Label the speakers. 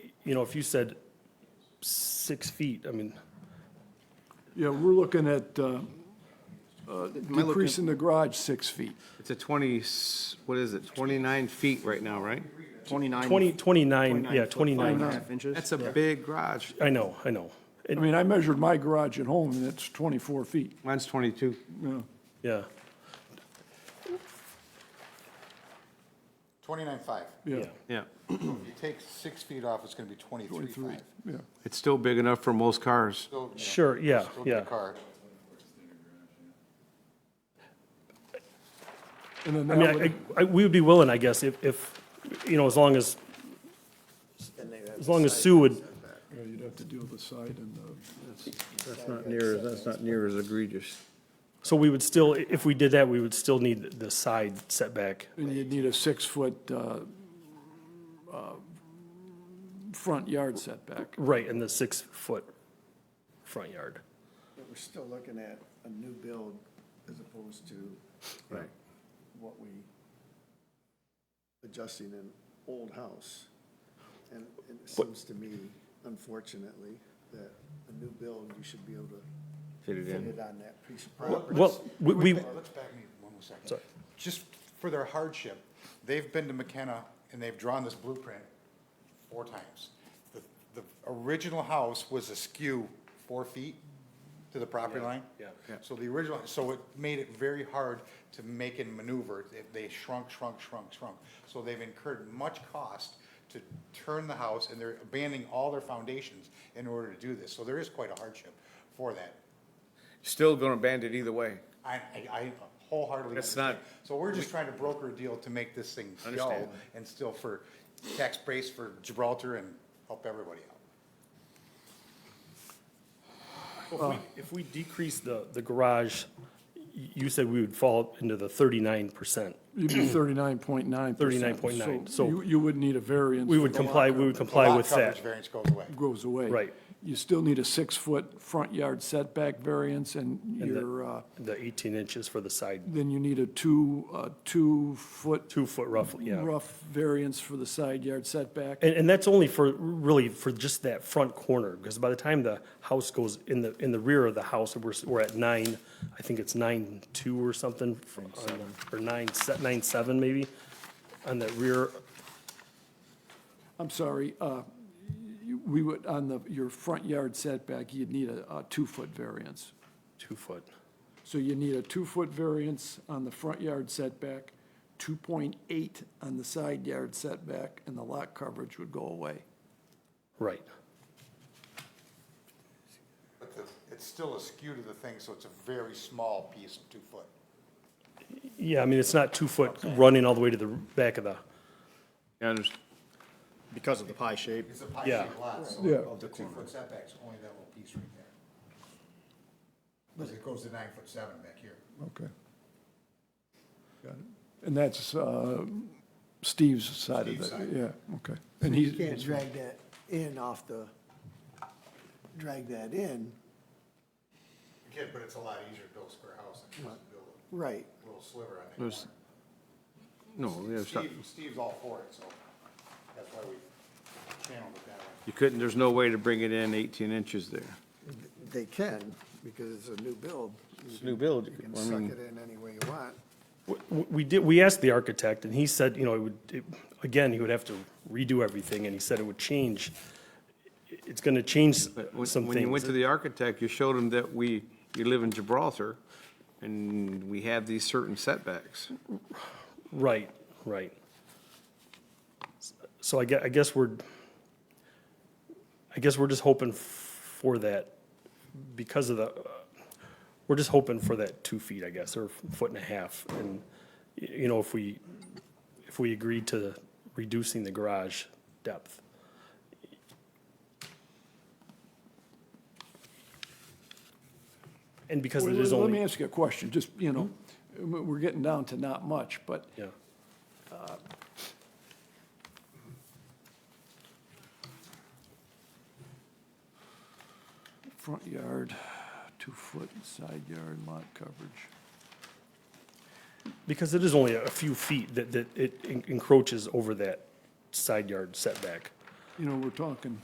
Speaker 1: you know, if you said six feet, I mean,
Speaker 2: Yeah, we're looking at uh, uh,
Speaker 3: looking-
Speaker 2: decreasing the garage six feet.
Speaker 3: It's a 20, s- what is it, 29 feet right now, right?
Speaker 4: 29.
Speaker 1: 20, 29, yeah,
Speaker 4: foot, five and a
Speaker 1: 29.
Speaker 4: half inches.
Speaker 3: That's a big garage.
Speaker 1: I know, I know.
Speaker 2: I
Speaker 1: And,
Speaker 2: mean, I measured my garage at home, and it's 24 feet.
Speaker 3: Mine's 22.
Speaker 2: Yeah.
Speaker 1: yeah,
Speaker 5: 29.5.
Speaker 1: yeah.
Speaker 3: Yeah.
Speaker 5: If you take six feet off, it's going to be 23.5.
Speaker 2: Yeah,
Speaker 3: It's still big enough for most cars.
Speaker 5: Still, you know,
Speaker 1: Sure, yeah,
Speaker 5: still get a
Speaker 1: yeah.
Speaker 5: car.
Speaker 2: and then
Speaker 1: I
Speaker 2: that
Speaker 1: mean,
Speaker 2: would-
Speaker 1: I- I, I, we would be willing, I guess, if, if, you know, as long as, as long as Sue would,
Speaker 2: yeah, you'd have to deal with the side and the,
Speaker 6: That's not near, as that's not near as egregious.
Speaker 1: so we would still, if we did that, we would still need the side setback.
Speaker 2: and you'd need a six-foot uh, uh, front yard setback.
Speaker 1: Right, in the six-foot front yard.
Speaker 4: But we're still looking at a new build as opposed to you know, what we adjusting an old house. And it seems to me, unfortunately, that a new build, you should be able to
Speaker 3: Fit it
Speaker 4: fit
Speaker 3: in.
Speaker 4: it on that piece of property.
Speaker 1: Well, we, we,
Speaker 5: Let's back me one more second. Just for their hardship, they've been to McKenna and they've drawn this blueprint four times. The, the original house was askew four feet to the property line. Yeah. So the original, so it made it very hard to make and maneuver. They- They shrunk, shrunk, shrunk, shrunk. So they've incurred much cost to turn the house and they're abandoning all their foundations in order to do this. So there is quite a hardship for that.
Speaker 3: Still gonna band it either way.
Speaker 5: I, I, I wholeheartedly.
Speaker 3: That's
Speaker 5: understand.
Speaker 3: not-
Speaker 5: So we're just trying to broker a deal to make this thing go
Speaker 3: Understand.
Speaker 5: and still for tax base for Gibraltar and help everybody out.
Speaker 1: If we- If we decrease the, the garage, y- you said we would fall into the thirty-nine percent.
Speaker 2: You'd be 39.9%.
Speaker 1: 39.9, so-
Speaker 2: You, you would need a variance.
Speaker 1: We would
Speaker 2: for the
Speaker 1: comply,
Speaker 2: lot
Speaker 1: we would
Speaker 2: coverage.
Speaker 1: comply
Speaker 5: Lot
Speaker 1: with
Speaker 5: coverage
Speaker 1: that.
Speaker 5: Variance goes away.
Speaker 2: Goes away.
Speaker 1: Right.
Speaker 2: You still need a six-foot front yard setback variance, and
Speaker 1: the-
Speaker 2: your, uh,
Speaker 1: The eighteen inches for the side,
Speaker 2: then you need a two, uh, two-foot
Speaker 1: two foot roughly, yeah.
Speaker 2: rough variance for the side yard setback.
Speaker 1: And, and that's only for, really, for just that front corner, because by the time the house goes in the, in the rear of the house, we're, s- we're at nine, I think it's nine two or something. from- on the- Or nine, se- nine seven maybe, on that rear,
Speaker 2: I'm sorry, uh, you- we would, on the, your front yard setback, you'd need a, a two-foot variance.
Speaker 1: two foot.
Speaker 2: So you need a two-foot variance on the front yard setback, 2.8 on the side yard setback, and the lot coverage would go away.
Speaker 1: Right,
Speaker 5: But the- It's still askew to the thing, so it's a very small piece of two foot.
Speaker 1: yeah, I mean, it's not two foot running all the way to the back of the,
Speaker 3: Yeah, I understand.
Speaker 4: Because of the pie shape.
Speaker 5: It's a pie
Speaker 1: Yeah.
Speaker 5: shaped lot, so
Speaker 2: Yeah.
Speaker 5: of the two foot setbacks, only that little piece right there. Because it goes to nine foot seven back here.
Speaker 2: Okay. Got it. And that's uh, Steve's side of
Speaker 5: Steve's
Speaker 2: it,
Speaker 5: side.
Speaker 2: yeah, okay. And he's.
Speaker 7: You can't drag that in off the, drag that in,
Speaker 5: You can, but it's a lot easier to build a square house than just build
Speaker 7: right.
Speaker 5: a little sliver on that
Speaker 3: There's-
Speaker 5: corner.
Speaker 3: No, yeah, it's not-
Speaker 5: Steve, Steve's all for it, so that's why we channeled it that way.
Speaker 3: you couldn't, there's no way to bring it in 18 inches there.
Speaker 7: They can, because it's a new build.
Speaker 3: a new build,
Speaker 7: You
Speaker 3: I
Speaker 7: can suck
Speaker 3: mean-
Speaker 7: it in any way you want.
Speaker 1: W- w- We did, we asked the architect, and he said, you know, it would, it- again, he would have to redo everything, and he said it would change. It's gonna change
Speaker 3: But when-
Speaker 1: some
Speaker 3: When you went
Speaker 1: things.
Speaker 3: to the architect, you showed him that we, you live in Gibraltar, and we have these certain setbacks.
Speaker 1: Right, right. So I guess, I guess we're, I guess we're just hoping for that because of the, uh, we're just hoping for that two feet, I guess, or foot and a half. And, y- you know, if we, if we agree to reducing the garage depth. And because
Speaker 2: Well,
Speaker 1: it is
Speaker 2: Let me
Speaker 1: only,
Speaker 2: ask you a question, just, you know, we- we're getting down to not much, but
Speaker 1: yeah,
Speaker 2: front yard, two-foot, side yard, lot coverage.
Speaker 1: because it is only a few feet that, that it en- encroaches over that side yard setback.
Speaker 2: you know, we're talking